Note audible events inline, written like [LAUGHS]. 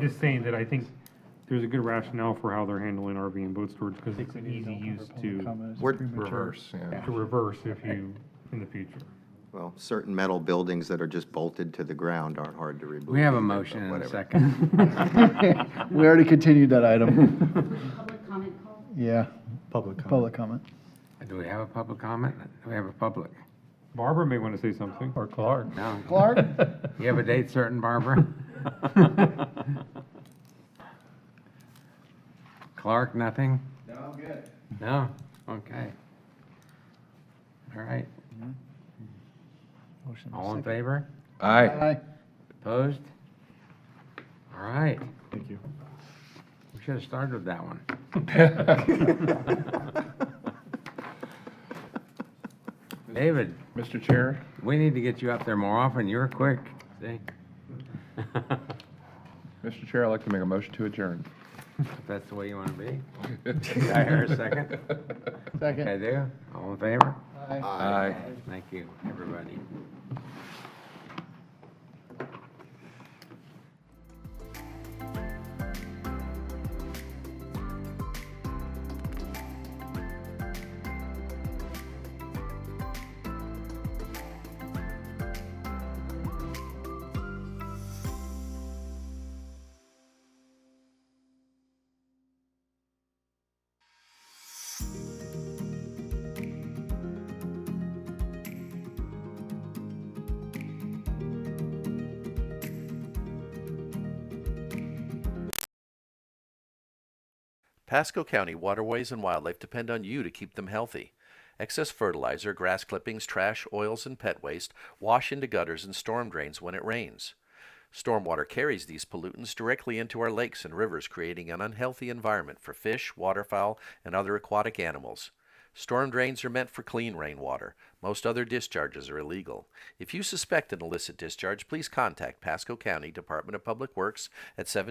Just saying that I think there's a good rationale for how they're handling RV and boat storage, because it's an easy use to, We're reverse, yeah. to reverse if you, in the future. Well, certain metal buildings that are just bolted to the ground aren't hard to remove. We have a either, but motion and a whatever. second. [LAUGHS] [LAUGHS] We already continued that item. Public comment call? Yeah, Public comment public comment. Do we have a public comment? Do we have a public? Barbara may want to say something. or Clark. [LAUGHS] No. Clark? You have a date certain, Barbara? Clark, nothing? No, I'm good. No? Okay. All right. [LAUGHS] Motion All in favor? Aye. Aye. Opposed? All right. Thank you. We should have started with that one. [LAUGHS] [LAUGHS] David, Mr. Chair? we need to get you up there more often. You're quick. See? [LAUGHS] Mr. Chair, I'd like to make a motion to adjourn. If that's the way you want to be. Did I hear a second? [LAUGHS] I Second. do. All in favor? Aye. Aye. Thank you, everybody. Pasco County waterways and wildlife depend on you to keep them healthy. Excess fertilizer, grass clippings, trash, oils, and pet waste wash into gutters and storm drains when it rains. Stormwater carries these pollutants directly into our lakes and rivers, creating an unhealthy environment for fish, waterfowl, and other aquatic animals. Storm drains are meant for clean rainwater. Most other discharges are illegal. If you suspect an illicit discharge, please contact Pasco County Department of Public Works at 7